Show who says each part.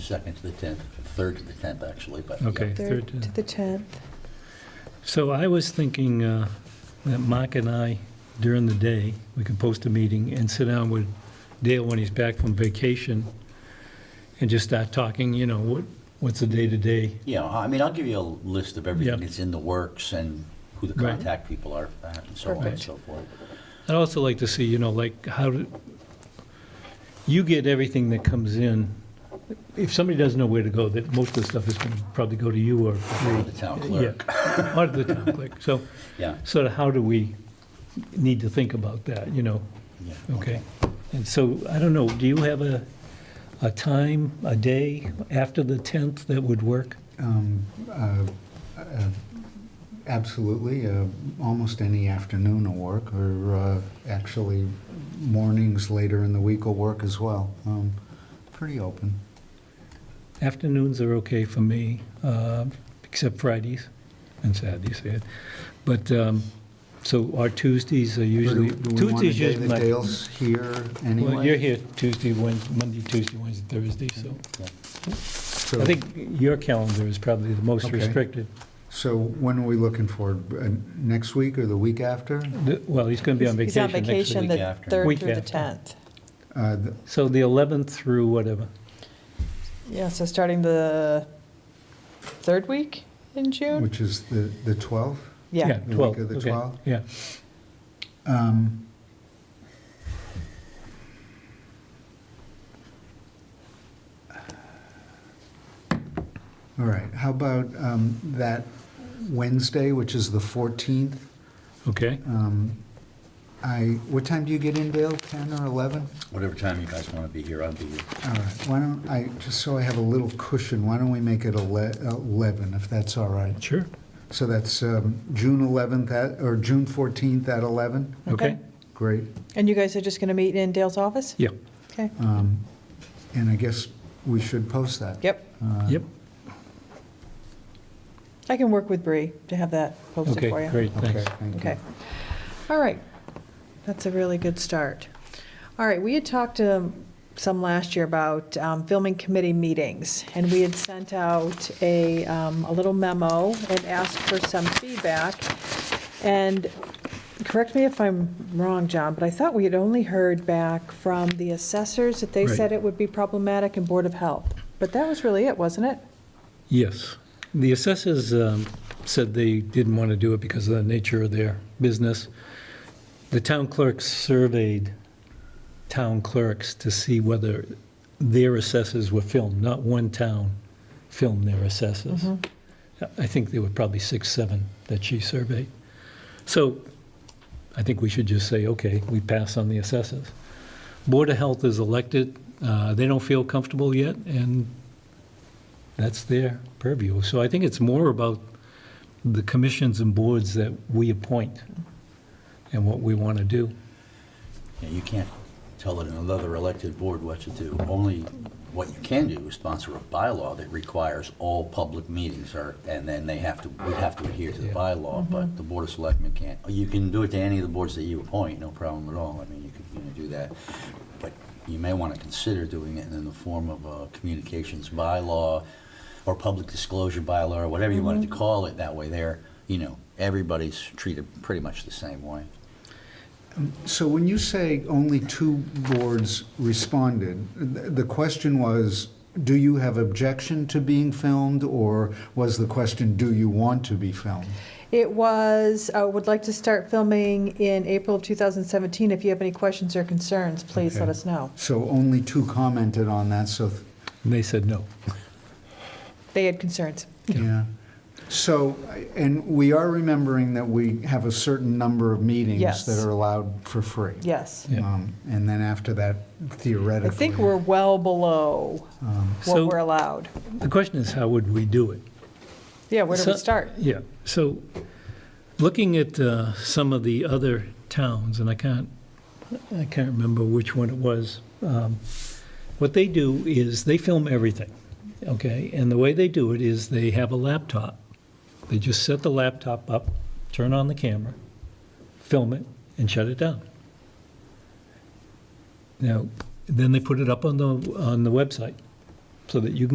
Speaker 1: second to the 10th, third to the 10th, actually, but. yeah.
Speaker 2: Okay,
Speaker 3: Third
Speaker 2: third.
Speaker 3: to the 10th.
Speaker 2: So I was thinking uh, that Mark and I, during the day, we could post a meeting and sit down with Dale when he's back from vacation and just start talking, you know, what, what's the day-to-day?
Speaker 1: Yeah, I mean, I'll give you a list of everything
Speaker 2: Yeah.
Speaker 1: that's in the works and who the
Speaker 2: Right.
Speaker 1: contact people are for that and so on and
Speaker 2: Perfect.
Speaker 1: so forth.
Speaker 2: I'd also like to see, you know, like, how, do- you get everything that comes in. If somebody doesn't know where to go, that most of the stuff is going to probably go to you or
Speaker 1: For the town clerk,
Speaker 2: Yeah, Or the town clerk. So
Speaker 1: yeah.
Speaker 2: sort of how do we need to think about that, you know?
Speaker 1: yeah,
Speaker 2: Okay. And so, I don't know, do you have a, a time, a day after the 10th that would work?
Speaker 4: Um, uh, uh, Absolutely, uh, almost any afternoon will work, or uh, actually mornings later in the week will work as well. Um, Pretty open.
Speaker 2: Afternoons are okay for me, uh, except Fridays and Saturdays. yeah. But, um, so our Tuesdays are usually,
Speaker 4: Do we want to
Speaker 2: Tuesdays
Speaker 4: day
Speaker 2: usually
Speaker 4: that
Speaker 2: my...
Speaker 4: Dale's here anyway?
Speaker 2: Well, you're here Tuesday, Wednesday, Monday, Tuesday, Wednesday, Thursday, so
Speaker 1: yeah.
Speaker 4: So-
Speaker 2: I think your calendar is probably the most
Speaker 4: Okay.
Speaker 2: restricted.
Speaker 4: So when are we looking for, uh, next week or the week after?
Speaker 2: The- Well, he's going to be on
Speaker 3: He's on
Speaker 2: vacation next
Speaker 3: vacation
Speaker 2: week.
Speaker 1: week
Speaker 3: the
Speaker 1: after.
Speaker 3: 3rd
Speaker 2: Week
Speaker 3: through the
Speaker 2: after.
Speaker 3: 10th.
Speaker 4: Uh, th-
Speaker 2: So the 11th through whatever.
Speaker 3: Yeah, so starting the third week in June?
Speaker 4: Which is the the 12th?
Speaker 3: Yeah,
Speaker 4: The week
Speaker 2: 12,
Speaker 4: of the
Speaker 2: okay,
Speaker 4: 12th?
Speaker 2: Yeah.
Speaker 4: Um, All right, how about um, that Wednesday, which is the 14th?
Speaker 2: Okay,
Speaker 4: Um, I, what time do you get in, Dale, 10 or 11?
Speaker 1: Whatever time you guys want to be here, I'll be here.
Speaker 4: All right, why don't I, just so I have a little cushion, why don't we make it ele- 11, if that's all right?
Speaker 2: sure,
Speaker 4: So that's um, June 11th, at- or June 14th at 11?
Speaker 2: okay,
Speaker 3: Okay.
Speaker 4: Great.
Speaker 3: and you guys are just going to meet in Dale's office?
Speaker 2: yeah,
Speaker 3: Okay,
Speaker 4: Um, And I guess we should post that.
Speaker 3: yep.
Speaker 4: Uh,
Speaker 2: yep,
Speaker 3: I can work with Bree to have that posted for
Speaker 2: okay,
Speaker 3: you.
Speaker 2: great,
Speaker 4: Okay,
Speaker 2: thanks.
Speaker 4: thank you.
Speaker 3: Okay. All right. That's a really good start. All right, we had talked um, some last year about um, filming committee meetings, and we had sent out a, um, a little memo and asked for some feedback. And correct me if I'm wrong, John, but I thought we had only heard back from the assessors that they
Speaker 2: Right.
Speaker 3: said it would be problematic and Board of Health. But that was really it, wasn't it?
Speaker 2: Yes, the assessors um, said they didn't want to do it because of the nature of their business. The town clerks surveyed town clerks to see whether their assessors were filmed, not one town filmed their assessors. I think there were probably six, seven that she surveyed. So I think we should just say, okay, we pass on the assessors. Board of Health is elected, uh, they don't feel comfortable yet, and that's their purview. So I think it's more about the commissions and boards that we appoint and what we want to do.
Speaker 1: Yeah, You can't tell it another elected board what to do. Only what you can do is sponsor a bylaw that requires all public meetings are, and then they have to, we have to adhere to the
Speaker 2: Yeah.
Speaker 1: bylaw, but the Board of Selectmen can't. You can do it to any of the boards that you appoint, no problem at all. I mean, you could, you know, do that. But you may want to consider doing it in the form of a communications bylaw or public disclosure bylaw, or whatever you wanted to call it. That way there, you know, everybody's treated pretty much the same way.
Speaker 4: So when you say only two boards responded, th- the question was, do you have objection to being filmed? Or was the question, do you want to be filmed?
Speaker 3: It was, uh, would like to start filming in April of 2017. If you have any questions or concerns, please let
Speaker 4: Okay.
Speaker 3: us know.
Speaker 4: So only two commented on that, so, th-
Speaker 2: And they said no.
Speaker 3: They had concerns.
Speaker 4: yeah. So, I- and we are remembering that we have a certain number of meetings
Speaker 3: Yes.
Speaker 4: that are allowed for free.
Speaker 3: Yes.
Speaker 2: Yeah.
Speaker 4: Um, And then after that,
Speaker 3: I
Speaker 4: theoretically.
Speaker 3: think we're well below
Speaker 4: um,
Speaker 3: what
Speaker 2: So-
Speaker 3: we're allowed.
Speaker 2: The question is, how would we do it?
Speaker 3: Yeah, where do we
Speaker 2: So-
Speaker 3: start?
Speaker 2: Yeah, so looking at uh, some of the other towns, and I can't, I can't remember which one it was, um, what they do is they film everything, okay? And the way they do it is they have a laptop. They just set the laptop up, turn on the camera, film it, and shut it down. Now, then they put it up on the, on the website so that you can.